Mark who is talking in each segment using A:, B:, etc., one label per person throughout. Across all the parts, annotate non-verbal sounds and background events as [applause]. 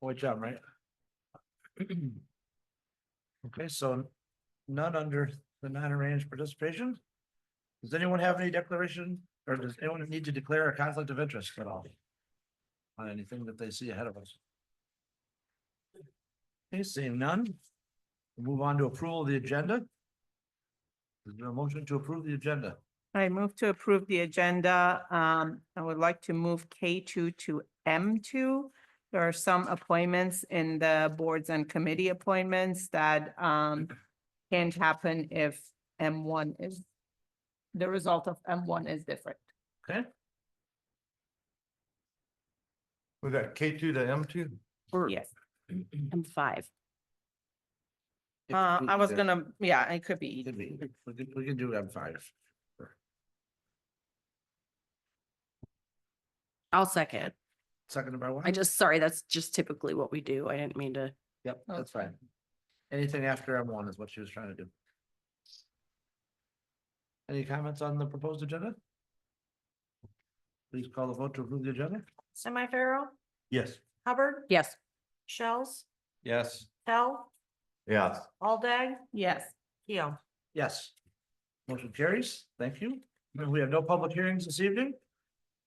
A: Boy, John, right? [clears throat] Okay, so none under the non-arranged participation? Does anyone have any declaration, or does anyone need to declare a conflict of interest at all? On anything that they see ahead of us? Okay, seeing none. We'll Move on to approval of the agenda. Is there a motion to approve the agenda?
B: I move to approve the agenda. Um, I would like to move K two to M two. There are some appointments in the boards and committee appointments that, um, can't happen if M one is, the result of M one is different.
A: Okay?
C: We got K two to M two?
B: Yes.
D: M five.
B: Uh, I was gonna, yeah, it could be.
A: Could be. We can, we can do M five.
D: I'll second.
A: Second by one?
D: I just, sorry, that's just typically what we do. I didn't mean to.
A: Yep, that's fine. Anything after M one is what she was trying to do. Any comments on the proposed agenda? Please call the vote to approve the agenda.
E: Semi-pharaoh,
A: Yes.
E: Hubbard,
D: Yes,
E: Shells,
C: Yes.
E: Hell,
C: Yes.
E: Aldag,
B: Yes,
E: Keel.
A: Yes. Motion carries. Thank you. We have no public hearings this evening.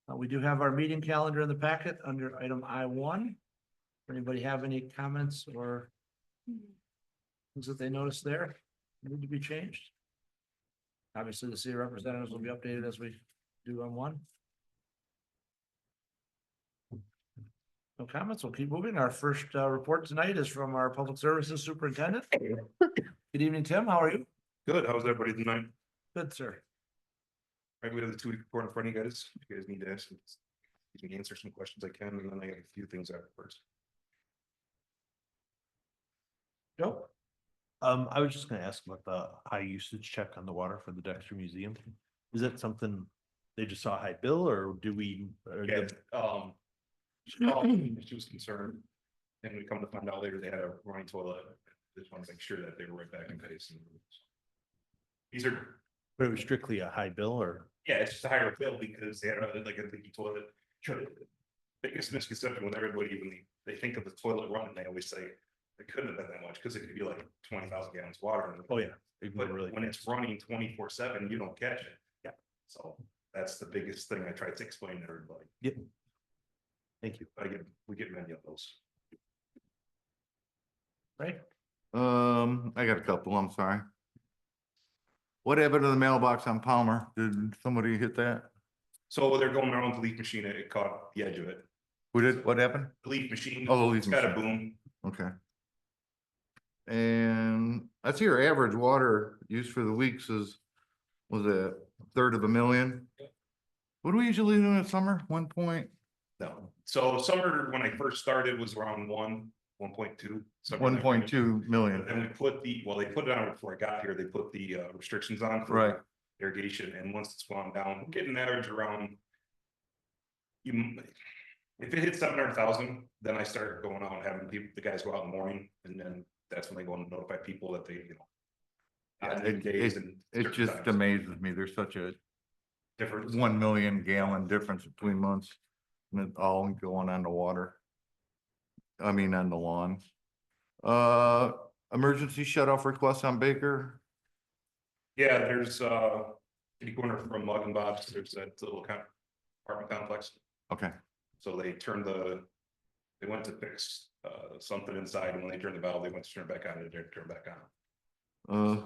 A: Uh, we do have our meeting calendar in the packet under item I one. Anybody have any comments or things that they noticed there need to be changed? Obviously, the city representatives will be updated as we do on one. No comments. We'll keep moving. Our first uh, report tonight is from our Public Services Superintendent. Good evening, Tim. How are you?
F: Good, how's everybody tonight?
A: Good, sir.
F: Right, we have the two week report in front of you guys, if you guys need to ask, some- if you can answer some questions I can, and then I got a few things afterwards.
A: Joe?
G: Um, I was just gonna ask about the high usage check on the water for the Dexter Museum. Is that something they just saw a high bill or do we? or
F: Yeah,
G: did-
F: um. She called me, she was concerned, and we come to find out later they had a running toilet, just want to make sure that they were right back in place. and- These are,
G: But it was strictly a high bill or?
F: yeah, it's just a higher bill because they had a- like a leaky toilet. Sure, Biggest misconception with everybody, when they, they think of the toilet run, they always say, it couldn't have been that much, because it could be like twenty thousand gallons of water. and-
G: Oh, yeah. it
F: But
G: really-
F: when it's running twenty-four seven, you don't catch it.
G: Yeah.
F: So that's the biggest thing I tried to explain to everybody.
G: Yep. Thank you.
F: I get, we get many of those.
A: Right?
C: Um, I got a couple, I'm sorry. What happened to the mailbox on Palmer? Did somebody hit that?
F: So they're going around the leaf machine, it caught the edge of it.
C: Who did, what happened?
F: The Leaf machine,
C: Oh, the leaf
F: it's got a
C: machine.
F: boom.
C: Okay. And I see your average water use for the weeks is, was a third of a million? What do we usually do in the summer? One point,
F: No. So summer, when I first started, was around one, one point two.
C: one point two million?
F: And we put the, well, they put it on before I got here, they put the uh, restrictions on. for
C: Right.
F: Irrigation, and once it's gone down, we're getting an average around. You, m- if it hits seven hundred thousand, then I start going out and having people, the guys go out in the morning, and then that's when they go and notify people that they, you know.
C: Yeah,
F: on
C: it-
F: new days
C: it-
F: and
C: It
F: certain
C: just
F: times.
C: amazes me. There's such a
F: Different.
C: one million gallon difference between months. And it all going on the water. I mean, on the lawn. Uh, emergency shut off request on Baker.
F: Yeah, there's uh, kitty corner from Mug and Bob's, there's that little kind of apartment complex.
C: Okay,
F: So they turned the, they went to fix uh something inside, and when they turned the valve, they went to turn it back on, and it didn't turn back on.
C: uh,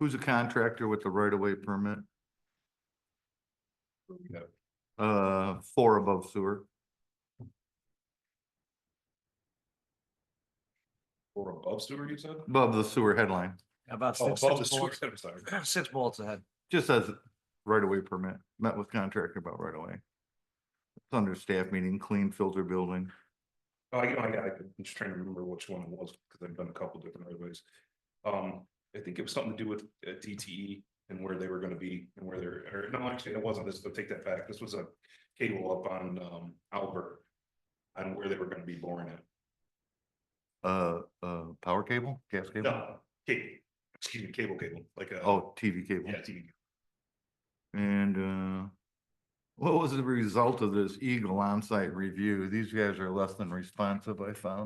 C: who's a contractor with the right of way permit?
F: Yep.
C: Uh, four above sewer.
F: Or above sewer, you said?
C: Above the sewer headline,
A: About
F: Oh,
A: six,
F: above the
A: six
F: sewer, [laughs]
A: bullets,
F: I'm sorry.
A: six bullets ahead.
C: just says right of way permit, met with contractor about right away. It's under staff meeting, clean filter building.
F: Oh, you know, I got, I'm just trying to remember which one it was, because I've done a couple different roadways. Um, I think it was something to do with uh, DTE and where they were gonna be and where they're, or no, actually, it wasn't, this, but take that back, this was a cable up on um Albert. On where they were gonna be boring it.
C: Uh, uh, power cable, gas cable?
F: No, cable, excuse me, cable cable, like a.
C: Oh, TV cable.
F: Yeah, TV.
C: And uh, what was the result of this Eagle on-site review? These guys are less than responsive, I found.